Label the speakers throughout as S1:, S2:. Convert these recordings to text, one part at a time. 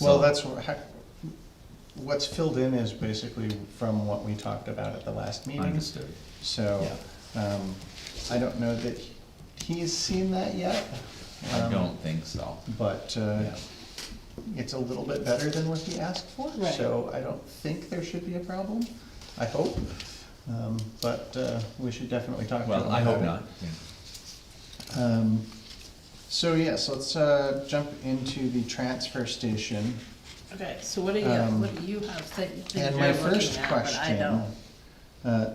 S1: Well,
S2: So-
S1: that's, wha- ha- what's filled in is basically from what we talked about at the last meeting.
S2: Understood.
S1: So, um, I don't know that he- he's seen that yet.
S2: I
S1: um,
S2: don't think so.
S1: But,
S2: Yeah.
S1: uh, it's a little bit better than what he asked for,
S3: Right.
S1: so I don't think there should be a problem, I hope. Um, but, uh, we should definitely talk to him about it.
S2: Well, I hope not. Yeah.
S1: Um, so yes, let's, uh, jump into the transfer station.
S3: Okay, so what do you,
S1: Um,
S3: what do you have that you think
S1: And
S3: you're
S1: my
S3: looking
S1: first
S3: at, but I
S1: question.
S3: don't?
S1: uh,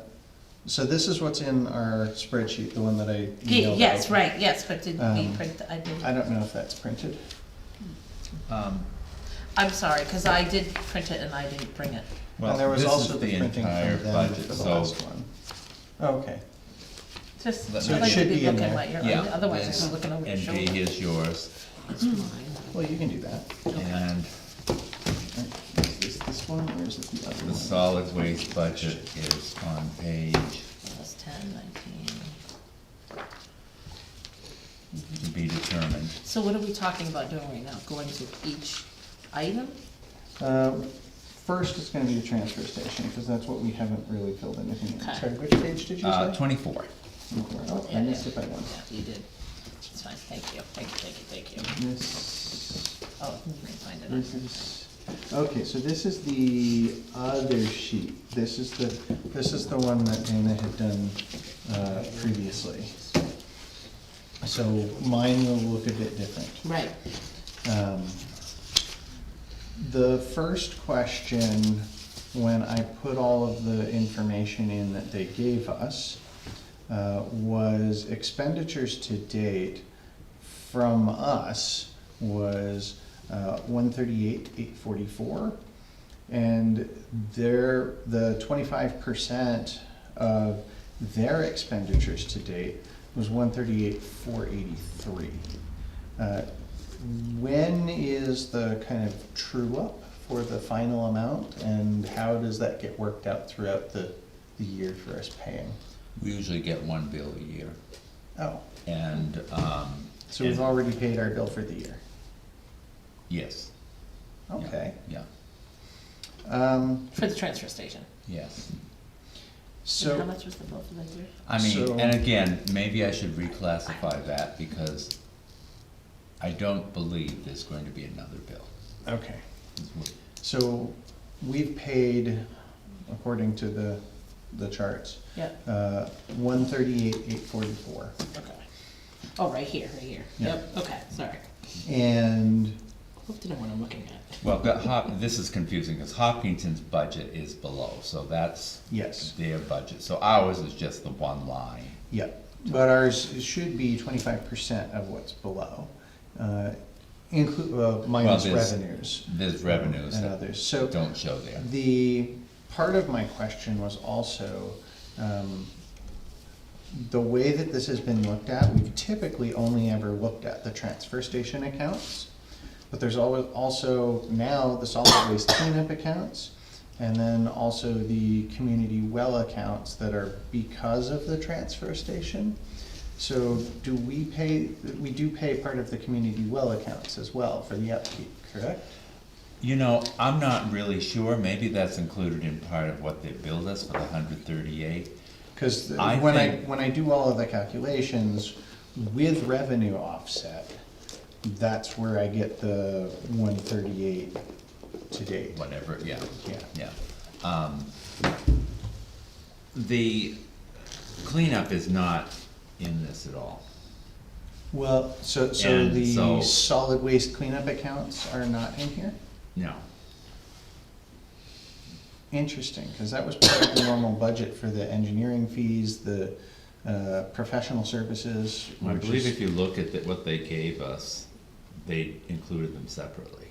S1: So this is what's in our spreadsheet, the one that I
S3: Ye-
S1: emailed.
S3: Yes,
S1: out.
S3: right, yes, but did we
S1: Um,
S3: print, the- I did,
S1: I don't know if that's printed.
S2: Um,
S3: I'm sorry, cause I did print it and I didn't bring it.
S1: And
S2: Well,
S1: there was
S2: this is
S1: also
S2: the
S1: the printing
S2: entire
S1: from them
S2: budget,
S1: for the
S2: so
S1: last one. Okay,
S3: Just,
S2: Let
S3: I'd
S2: me-
S3: like
S1: Should
S3: to be
S1: be in
S3: looking
S1: there.
S3: at your,
S2: Yeah,
S3: otherwise
S2: this
S3: I'm looking over your
S2: and Jay,
S3: shoulder.
S2: here's yours,
S1: well, you can do that.
S2: and
S1: Is this this one or is it the other
S2: the
S1: one?
S2: solid waste budget is on page,
S3: That's ten, nineteen.
S2: to be determined.
S3: So what are we talking about doing right now? Going to each item?
S1: Uh, First, it's gonna be the transfer station, because that's what we haven't really filled anything in.
S3: Okay.
S1: Sorry, which page did you
S2: Uh,
S1: say?
S2: twenty-four.
S1: Oh, I missed it by one.
S3: Yeah, you did. It's fine, thank you, thank you, thank you,
S1: Mm-hmm.
S3: thank you.
S1: This,
S3: Oh, you can find it.
S1: this is, okay, so this is the other sheet. This is the, this is the one that Dana had done uh, previously. So mine will look a bit different.
S3: Right,
S1: Um, The first question, when I put all of the information in that they gave us, uh, was expenditures to date from us was uh, one thirty-eight, eight forty-four. And their, the twenty-five percent of their expenditures to date was one thirty-eight, four eighty-three. Uh, When is the kind of true up for the final amount and how does that get worked out throughout the, the year for us paying?
S2: We usually get one bill a year,
S1: Oh,
S2: and, um.
S1: so we've
S2: and-
S1: already paid our bill for the year,
S2: Yes. yeah,
S1: okay.
S2: Yeah,
S1: Um,
S3: for the transfer station.
S2: yes.
S3: And how
S1: so,
S3: much was the bill for that year?
S2: I
S1: So-
S2: mean, and again, maybe I should reclassify that, because I don't believe there's going to be another bill.
S1: okay, so we've paid, according to the, the charts,
S3: Yeah,
S1: uh, one thirty-eight, eight forty-four.
S3: okay. Oh, right here, right here.
S1: Yeah.
S3: Yep, okay, sorry.
S1: And,
S3: Hope to know what I'm looking at.
S2: Well, but Hop, this is confusing, because Hopkinton's budget is below, so that's
S1: yes,
S2: their budget, so ours is just the one line.
S1: Yeah, but ours should be twenty-five percent of what's below, uh, include, uh, minus
S2: Well, there's-
S1: revenues.
S2: There's revenues
S1: And
S2: that
S1: others, so
S2: don't show there.
S1: the, part of my question was also, um, the way that this has been looked at, we've typically only ever looked at the transfer station accounts. But there's always, also now the solid waste cleanup accounts, and then also the community well accounts that are because of the transfer station. So do we pay, we do pay part of the community well accounts as well for the upkeep, correct?
S2: You know, I'm not really sure, maybe that's included in part of what they billed us for the hundred thirty-eight.
S1: Because
S2: I
S1: when I,
S2: think-
S1: when I do all of the calculations with revenue offset, that's where I get the one thirty-eight to date.
S2: whatever, yeah,
S1: Yeah.
S2: yeah. Um, The cleanup is not in this at all.
S1: Well, so, so
S2: And so-
S1: the solid waste cleanup accounts are not in here?
S2: No,
S1: Interesting, because that was part of the normal budget for the engineering fees, the, uh, professional services.
S2: I
S1: which
S2: believe
S1: is-
S2: if you look at the- what they gave us, they included them separately.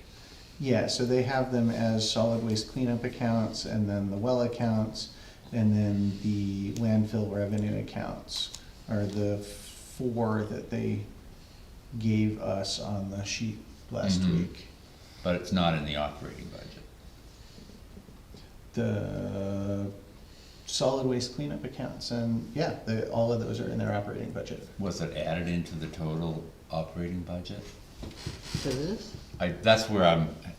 S1: Yeah, so they have them as solid waste cleanup accounts, and then the well accounts, and then the landfill revenue accounts are the four that they gave us on the sheet last
S2: Mhm.
S1: week.
S2: But it's not in the operating budget.
S1: The solid waste cleanup accounts, and yeah, the, all of those are in their operating budget.
S2: Was it added into the total operating budget?
S3: For this?
S2: I, that's where I'm